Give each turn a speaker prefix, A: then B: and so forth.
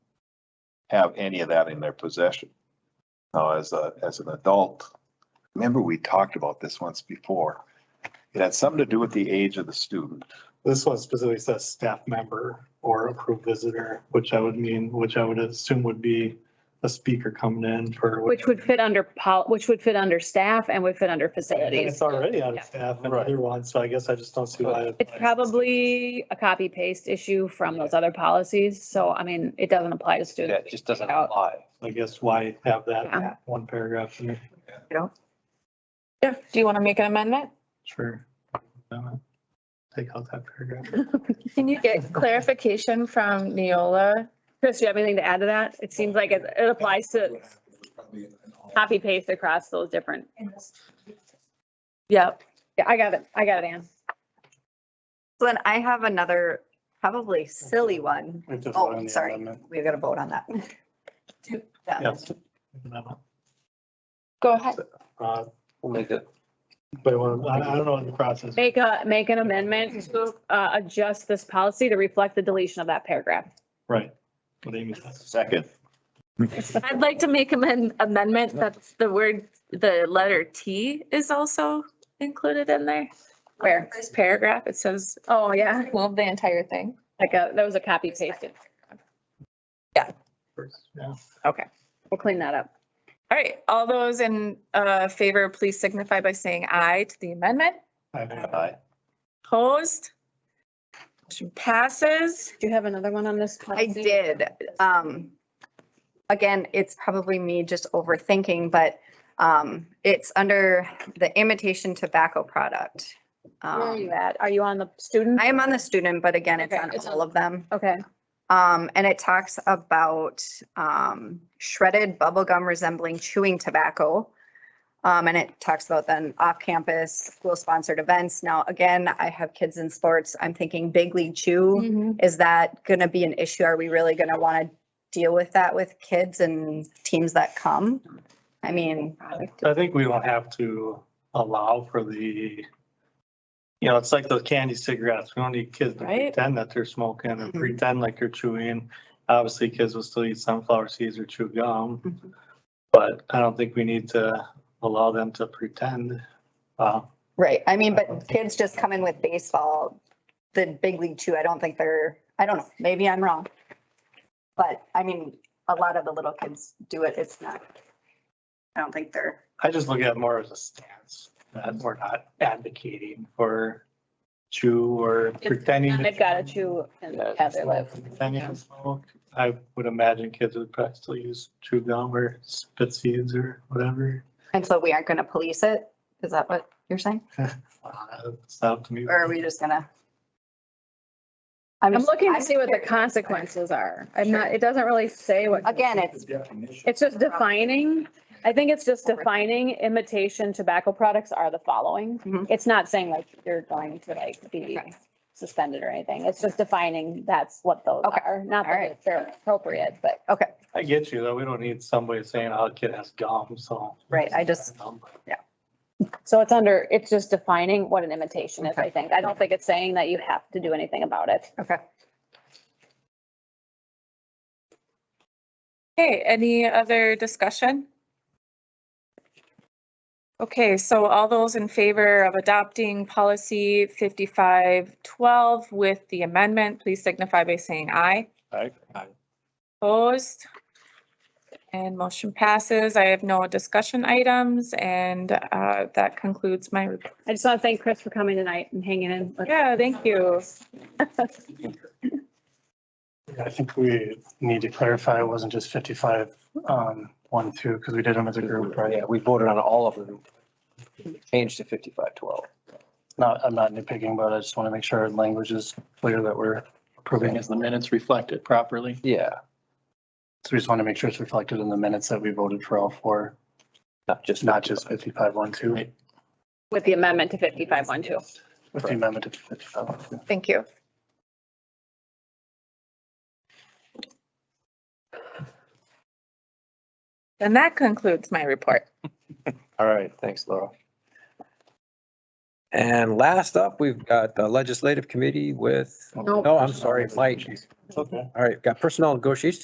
A: have any of that in their possession. Now, as a, as an adult, remember we talked about this once before. It had something to do with the age of the student.
B: This one specifically says staff member or approved visitor, which I would mean, which I would assume would be a speaker coming in for.
C: Which would fit under pol, which would fit under staff and would fit under
B: And
C: facilities.
B: it's already out
C: Yeah.
B: of staff and other one, so I guess I just don't see why.
C: It's probably a copy paste issue from those other policies, so I mean, it doesn't apply to
D: Yeah,
C: students.
D: it just doesn't
C: Take it out.
D: apply.
B: I guess why have
C: Yeah.
B: that one paragraph in there?
E: Yeah, do you want to make an amendment?
B: Sure. Take out that paragraph.
E: Can you get clarification from Neola?
C: Chris, do you have anything to add to that? It seems like it, it applies to copy paste across those different.
E: Yep.
C: Yeah, I got it. I got it, Ann.
F: So then I have another probably silly one.
B: We have to vote on
F: Oh,
B: the
F: sorry,
B: amendment.
F: we've got to vote on that. Yeah.
B: Yes.
E: Go ahead.
B: Uh,
D: We'll make it.
B: But well, I I don't know what the process.
C: Make a, make an amendment to, uh, adjust this policy to reflect the deletion of that paragraph.
B: Right. What Amy says.
A: Second.
G: I'd like to make an amendment that the word, the letter T is also included in there.
C: Where?
G: This paragraph, it says,
C: Oh, yeah.
E: Move the entire thing.
C: Like a, that was a copy pasted.
B: Yeah.
C: We'll clean that up.
E: All right, all those in uh, favor, please signify by saying aye to the amendment.
B: I-
A: Aye.
E: Opposed? Motion passes.
C: Do you have another one on this?
F: I
C: policy?
F: did. Um, again, it's probably me just overthinking, but, um, it's under the imitation tobacco product.
C: Where are you
F: Um,
C: at? Are you on the student?
F: I am on the student, but again, it's
C: Okay,
F: on
C: it's
F: all
C: on-
F: of them.
C: Okay.
F: Um, and it talks about, um, shredded bubble gum resembling chewing tobacco. Um, and it talks about then off-campus, school-sponsored events. Now, again, I have kids in sports. I'm thinking big league chew.
C: Mm-hmm.
E: Mm-hmm.
F: Is that gonna be an issue? Are we really gonna wanna deal with that with kids and teams that come? I mean,
B: I think we don't have to allow for the, you know, it's like those candy cigarettes. We don't need kids to
E: Right.
B: pretend that they're smoking or
F: Mhm.
B: pretend like they're chewing. Obviously, kids will still eat sunflower seeds or chew gum.
F: Mhm.
B: But I don't think we need to allow them to pretend. Uh,
F: right, I mean,
C: Um,
F: but kids just come in with baseball, the big league too. I don't think they're, I don't know, maybe I'm wrong. But I mean, a lot of the little kids do it. It's not, I don't think they're.
B: I just look at it more as a stance that we're not advocating for chew or pretending. to
C: They've got to chew and have their live.
B: Pretending to smoke. I would imagine kids would probably still use chew gum or spit seeds or whatever.
F: And so we aren't gonna police it? Is that what you're saying?
B: Uh, It's not up to me.
F: Or are we just gonna?
C: I'm
F: just-
C: looking to
F: I'm
C: see what the
F: curious.
C: consequences are. I'm not, it doesn't really say what.
F: Again, um, it's,
C: It's just defining, I think it's just defining imitation tobacco products are the following.
F: Mhm.
C: It's not saying like you're going to like be
F: Okay.
C: suspended or anything. It's just defining that's what those
F: Okay.
C: are. Not
F: All
C: that
F: right.
C: they're appropriate, but.
F: okay,
B: I get you though. We don't need somebody saying, oh, a kid has gum, so.
F: Right, I just-
C: So it's under, it's just defining what an imitation is,
F: Okay.
C: I think. I don't think it's saying that you have to do anything about it.
F: okay.
E: Okay, any other discussion? Okay, so all those in favor of adopting policy 5512 with the amendment, please signify by saying aye.
A: Aye.
D: Aye.
E: Opposed? And motion passes. I have no discussion items, and uh, that concludes my report.
C: I just want to thank Chris for coming tonight and hanging in. with-
E: Yeah, thank you.
H: Yeah, I think we need to clarify, it wasn't just fifty-five, um, one, two, because we did them as a group, right?
D: Yeah, we voted on all of them. Changed to fifty-five twelve.
H: Not, I'm not nitpicking, but I just want to make sure our language is clear that we're approving as the minutes reflect it properly.
D: Yeah,
H: So we just want to make sure it's reflected in the minutes that we voted for all four,
D: not just.
H: not just fifty-five, one, two,
C: With the amendment to 5512.
H: with the amendment to fifty-five. one, two.
E: Thank you. And that concludes my report.
D: All right, thanks, Laura. And last up, we've got the legislative committee with, no, oh, I'm sorry, Mike.
B: Okay.
D: All right, got personnel negotiations